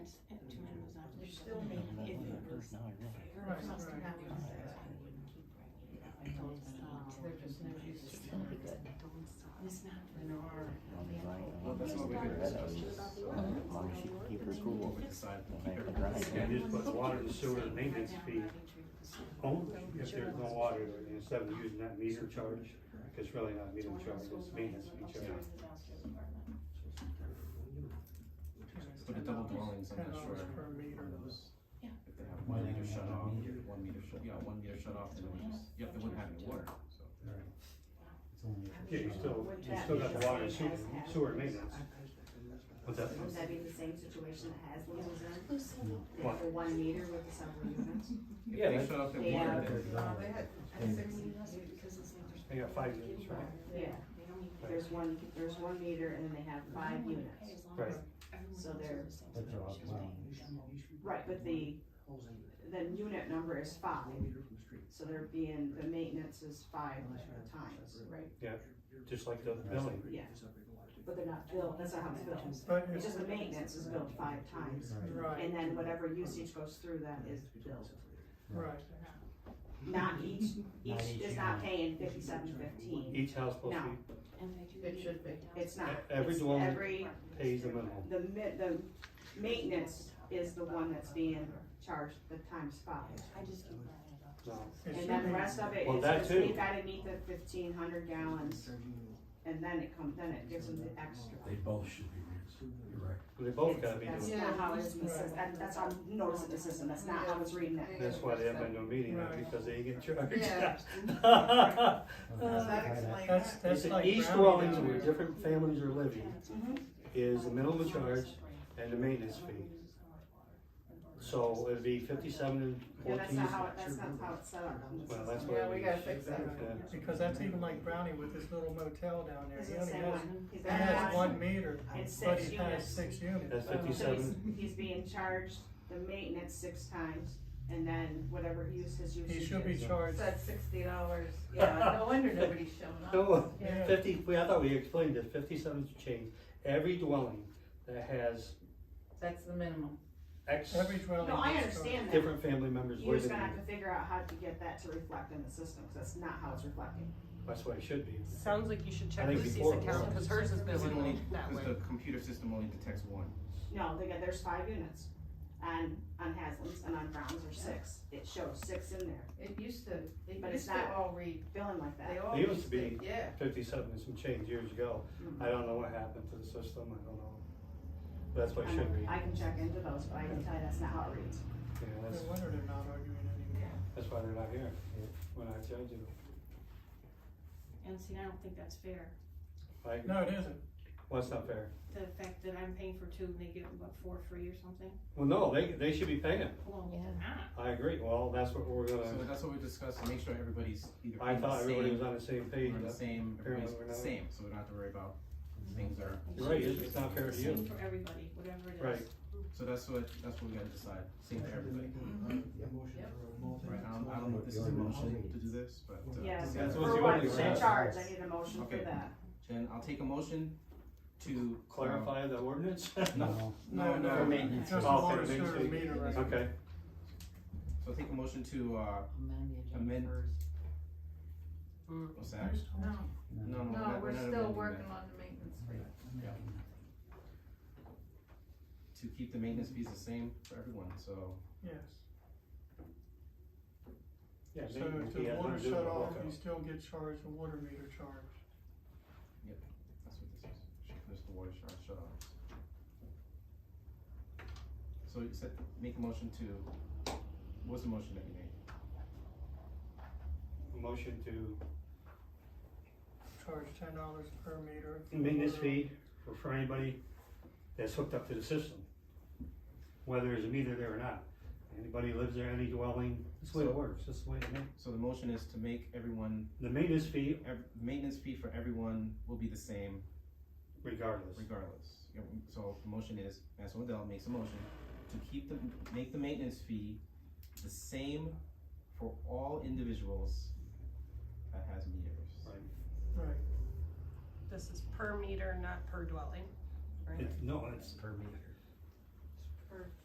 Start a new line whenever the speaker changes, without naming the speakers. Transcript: you're
Right,
supposed to
right.
not be upset. I wouldn't keep bringing it up. I told him not to.
There's just no use.
It's gonna be good. Don't stop. It's not for
There are.
Well, that's what we did.
Here's Barbara's question about the ordinance.
As long as you keep her
They need
cool.
to
We
fix
decided to
it.
keep her dry.
Because
Yeah, just put
everyone's
water and
saying
sewer
right
maintenance
now,
fee
Rodney Tripp
only if there's no water, there, and instead of using that meter charge, it's really
is
not meter
one of those
charge, it's
schools
maintenance
that
fee
upstairs
charge.
is downstairs apartment.
But the double dwellings, I'm
Ten
not sure.
dollars per meter.
If they have one meter shut off, one meter shut, yeah, one meter shut off, then it would just, yep, they wouldn't have any water, so.
Yeah, you still, you still got the water and sewer, sewer and maintenance. But that's,
Would that be the same situation that Haslam was in?
Who said that?
They have the one meter with the separate units?
If
Yeah,
they
that's-
shut off their
They
water,
have-
then
Uh, they had,
I said, "Well, that's because it's not
they got five units, right?
Yeah,
They don't even.
there's one, there's one meter and then they have five
Everyone would pay
units.
as long
Right.
as everyone
So
else was
they're-
the same
That's
amount
all
she was
mine.
paying.
Right, but the, the unit number is five, so they're being, the maintenance is five times, right?
Just like the building.
Yeah, but they're not billed, that's not how it's billed.
But
It's
it's,
just the maintenance is billed five times,
right,
and then whatever usage goes through that is billed.
right.
Not each,
Not
each
each
is not paying fifty-seven fifteen,
Each house supposed to
And they do.
It
need
should be.
down-
it's not.
E- every
It's
dwelling-
Every,
be, pays the minimum.
the mi- the maintenance is the one that's being charged the times five.
I just keep running it up.
No.
It
And
should
then the
be.
rest of it
Well,
is,
that
just
too.
you gotta meet the fifteen hundred gallons, and then it comes, then it gives them the extra.
They both should be rinsed, you're right.
They both gotta be
That's
doing,
it.
not how it's, in the sys- that, that's how I'm noticing the system, that's not how it's reading it.
that's why they have no meeting, now, because they get charged.
Yeah.
Uh,
Does that explain
That's,
that?
that's
It's
like.
Each
brownie
dwellings
down
where
there.
different families are living
Mm-hmm.
is the minimum charge and the maintenance fee. So it'd be fifty-seven and
Yeah, that's
fourteen.
not how, it- that's not how it's set up in the
Well, that's
system.
what.
Yeah, we gotta fix that.
Yeah.
Because that's even like Brownie with his little motel down there.
It's
He
the
only
same
has,
one. He's
he
got
has
one-
one meter,
It's
but
six
he has
units.
six units.
That's
Oh.
So he's,
57.
he's being charged the maintenance six times, and then whatever use his usage
He
is.
should be charged.
That's sixty dollars, yeah, no wonder nobody's showing up.
No,
Yeah.
fifty, we- I thought we explained this, fifty-seven change, every dwelling that has
That's the minimum.
X
Every dwelling.
No, I
is
understand that,
different family members
you're just
living,
gonna have
in it.
to figure out how to get that to reflect in the system, cause that's not how it's reflecting.
that's what it should be.
Sounds like you should
I
check
think
Lucy's
before it
account,
was.
cause hers is
Cause it only,
billing that
cause
way.
the computer system only detects one.
No, they got, there's five units, on, on Haslam's and on Brown's are six, it shows six in there,
It used to, it
But it's
used
not-
to all read,
feeling like
they
that.
all
It used
used
to
to,
be.
yeah.
Fifty-seven and some change years ago, I don't know what happened to the system, I don't know, But that's what it
I'm-
should be,
I can check into those, but I can tell you that's not how it reads.
Yeah,
No
that's,
wonder they're not arguing anymore.
that's why they're not here, when I judge them.
And see, I don't think that's fair.
Like,
No, it isn't.
well, that's not fair,
The fact that I'm paying for two and they give what, four free or something?
well, no, they, they should be paying,
Well,
Yeah.
they're not.
I agree, well, that's what we're
So
gonna,
that's what we discussed, to make sure everybody's either.
I
paying the
thought everybody
same
was on the same page,
Or the same,
Apparently
everybody's
we're
the
not.
same, so we don't have to worry about things are,
You're right, it's it's not fair to you.
Same for everybody, whatever it is.
Right.
so that's what, that's what we gotta decide, same for everybody. Right, I don't, I don't know if this is a motion to do this, but. uh,
Yeah,
That's
for
what the
what,
only
for
sentence
charge, I
is.
need a motion for
Okay.
that.
Then I'll take a motion to. uh,
Clarify the ordinance?
No.
No, no,
No, no,
maintenance.
just a
Oh, for
water
the
sewer
maintenance.
meter right now.
Okay,
So I'll take a motion to, uh, amend. What's that?
No,
No, no, we're
no,
not-
we're
not
still
amending
working
that.
on the maintenance rate.
To keep the maintenance fees the same for everyone, so.
Yes.
yeah,
So
maybe
if
he
the
has nothing
water
to do with
shut
the
off,
walkout.
you still get charged the water meter charge.
That's what this is. Shut this the water shut, shut off. So you said, make a motion to, what's the motion that you made?
Motion to
Charge ten dollars per meter. for
maintenance
water.
fee for, for anybody that's hooked up to the system, whether there's a meter there or not. Anybody lives there, any dwelling, that's the way it works, that's the way it ma-
So the motion is to make everyone,
The maintenance fee
ev- maintenance fee for everyone will be the same
regardless.
regardless. You know, So the motion is, Master Odell makes a motion to keep the, make the maintenance fee the same for all individuals that has meters.
Right.
Right.
This is per meter, not per dwelling.
It's, no, it's
Per meter.